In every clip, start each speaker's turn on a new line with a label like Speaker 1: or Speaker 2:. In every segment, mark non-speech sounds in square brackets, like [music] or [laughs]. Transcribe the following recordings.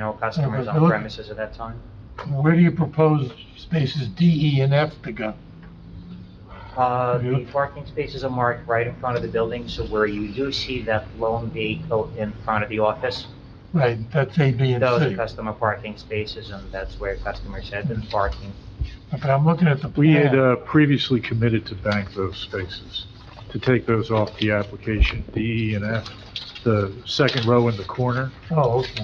Speaker 1: No customers
Speaker 2: Uh,
Speaker 1: on
Speaker 2: look-
Speaker 1: premises at that time?
Speaker 2: Where do you propose spaces D, E, and F to go?
Speaker 1: Uh,
Speaker 2: Have you
Speaker 1: The
Speaker 2: looked-
Speaker 1: parking spaces are marked right in front of the building, so where you do see that lone vehicle in front of the office,
Speaker 2: Right, that's A, B, and
Speaker 1: those are
Speaker 2: C.
Speaker 1: customer parking spaces, and that's where customers have been parking.
Speaker 2: But I'm looking at the
Speaker 3: We had
Speaker 2: plan.
Speaker 3: uh, previously committed to bank those spaces, to take those off the application, D, E, and F, the second row in the corner.
Speaker 2: Oh, okay.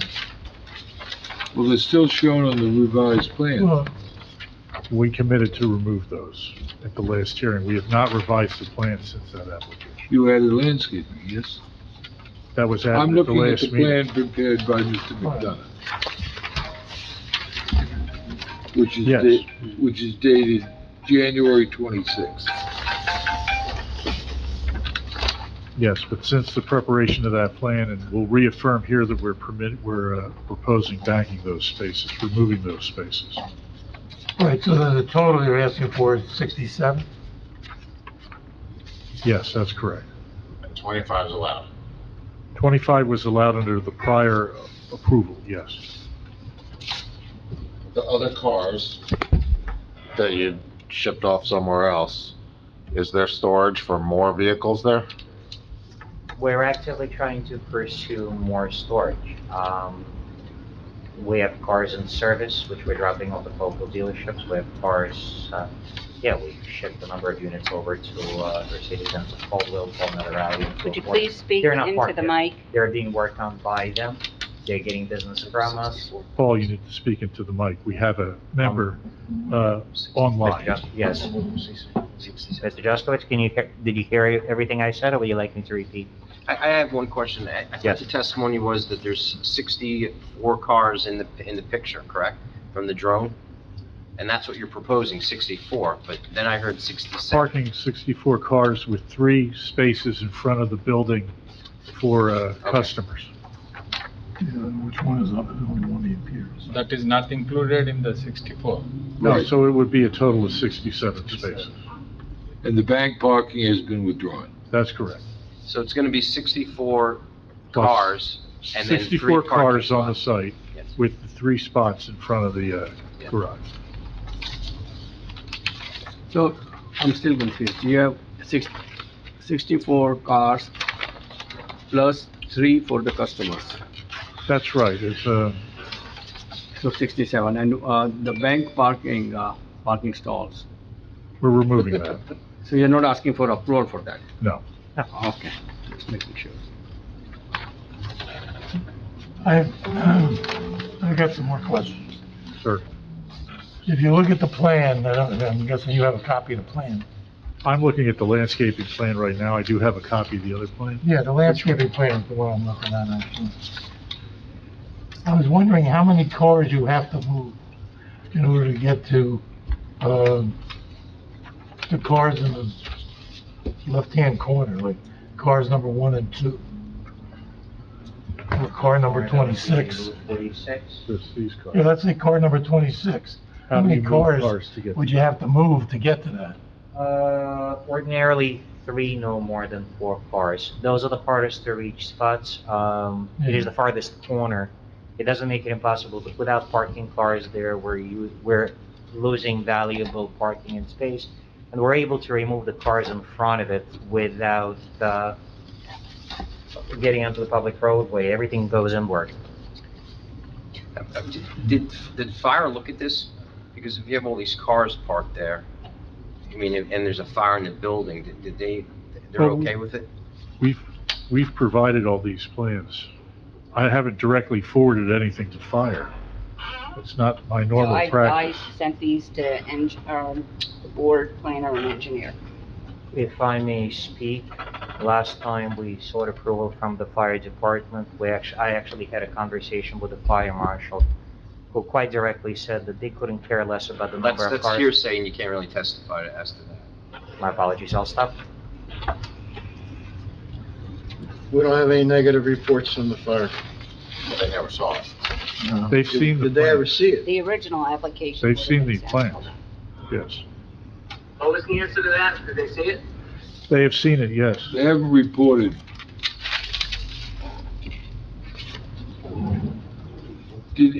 Speaker 4: Well, they're still shown on the revised plan.
Speaker 2: Well,
Speaker 3: We committed to remove those at the last hearing. We have not revised the plan since that application.
Speaker 4: You added landscaping, yes?
Speaker 3: That was
Speaker 4: I'm
Speaker 3: added at the
Speaker 4: looking at
Speaker 3: last
Speaker 4: the
Speaker 3: meeting.
Speaker 4: plan prepared by Mr. McDonough. Which is,
Speaker 3: Yes.
Speaker 4: da- which is dated January 26th.
Speaker 3: Yes, but since the preparation of that plan, and we'll reaffirm here that we're permitted, we're uh, proposing banking those spaces, removing those spaces.
Speaker 2: right, so then the total you're asking for is 67?
Speaker 3: Yes, that's correct.
Speaker 5: And 25 is allowed.
Speaker 3: 25 was allowed under the prior approval, yes.
Speaker 5: The other cars that you shipped off somewhere else, is there storage for more vehicles there?
Speaker 1: We're actively trying to pursue more storage. Um, We have cars in service, which we're dropping off at local dealerships. We have cars, uh, yeah, we shipped a number of units over to uh, Mercedes-Benz, Caldwell, Palmetto Alley. and so
Speaker 6: Would you
Speaker 1: forth.
Speaker 6: please speak
Speaker 1: They're not
Speaker 6: into
Speaker 1: parked
Speaker 6: the
Speaker 1: yet.
Speaker 6: mic?
Speaker 1: They're being worked on by them. They're getting business from us.
Speaker 3: Paul, you need to speak into the mic. We have a member uh,
Speaker 1: Mr.
Speaker 3: online.
Speaker 1: Jus- Yes. Mr. Juskowitz, can you, he- did you hear everything I said, or would you like me to repeat?
Speaker 7: I, I have one question. I I
Speaker 1: Yes.
Speaker 7: think the testimony was that there's 64 cars in the, in the picture, correct, from the drone? And that's what you're proposing, 64, but then I heard 67.
Speaker 3: Parking 64 cars with three spaces in front of the building for uh, customers.
Speaker 2: Which one is up, the only one that appears?
Speaker 8: That is not included in the 64.
Speaker 3: No,
Speaker 4: Right.
Speaker 3: so it would be a total of 67 spaces.
Speaker 4: And the bank parking has been withdrawn.
Speaker 3: That's correct.
Speaker 7: So it's going to be 64
Speaker 3: Plus
Speaker 7: cars and then three
Speaker 3: 64 cars on the
Speaker 7: parking spots.
Speaker 3: site
Speaker 7: Yes.
Speaker 3: with the three spots in front of the uh,
Speaker 7: Yeah.
Speaker 3: garage.
Speaker 9: So I'm still confused. You have six, sixty-four cars plus three for the customers,
Speaker 3: That's right. It's, uh,
Speaker 9: so sixty-seven. And, uh, the bank parking, uh, parking stalls.
Speaker 3: we're removing
Speaker 7: [laughs]
Speaker 3: that.
Speaker 9: So you're not asking for approval for that?
Speaker 3: No.
Speaker 9: Okay, just making sure.
Speaker 2: I, [clears throat] I got some more questions.
Speaker 3: Sir,
Speaker 2: If you look at the plan, I don't- I'm guessing you have a copy of the plan.
Speaker 3: I'm looking at the landscaping plan right now. I do have a copy of the other plan.
Speaker 2: Yeah, the landscaping plan is the one I'm looking at, actually. I was wondering how many cars you have to move in order to get to, um, the cars in the left-hand corner, like cars number one and two. Or car number twenty-six.
Speaker 1: Forty-six.
Speaker 3: There's these cars.
Speaker 2: Yeah, let's say car number twenty-six. How
Speaker 3: How do
Speaker 2: many
Speaker 3: you move
Speaker 2: cars
Speaker 3: cars to get?
Speaker 2: would you have to move to get to that?
Speaker 1: Uh, ordinarily, three, no more than four cars. Those are the hardest to reach spots. Um, it is the farthest corner. It doesn't make it impossible, but without parking cars there, we're u, we're losing valuable parking and space. And we're able to remove the cars in front of it without, uh, getting onto the public roadway. Everything goes inward.
Speaker 7: Uh, uh, Did, did fire look at this? Because if you have all these cars parked there, I mean, and and there's a fire in the building, did- did they, they're
Speaker 3: Well,
Speaker 7: okay with it?
Speaker 3: We've, we've provided all these plans. I haven't directly forwarded anything to fire. It's not my
Speaker 6: So
Speaker 3: normal
Speaker 6: I, I
Speaker 3: practice.
Speaker 6: sent these to eng, um, the board planner and engineer.
Speaker 1: If I may speak, last time we sought approval from the fire department, we actually, I actually had a conversation with the fire marshal, who quite directly said that they couldn't care less about the
Speaker 7: That's,
Speaker 1: number of
Speaker 7: that's
Speaker 1: cars.
Speaker 7: hearsay and you can't really testify as to that.
Speaker 1: My apologies, I'll stop.
Speaker 10: We don't have any negative reports from the fire.
Speaker 5: They never saw it.
Speaker 3: They've seen the
Speaker 10: Did they ever
Speaker 3: plans,
Speaker 10: see it?
Speaker 6: The original application.
Speaker 3: They've
Speaker 6: was
Speaker 3: seen the
Speaker 6: exempt.
Speaker 3: plans. yes.
Speaker 11: What was the answer to that? Did they see it?
Speaker 3: They have seen it, yes.
Speaker 4: They haven't reported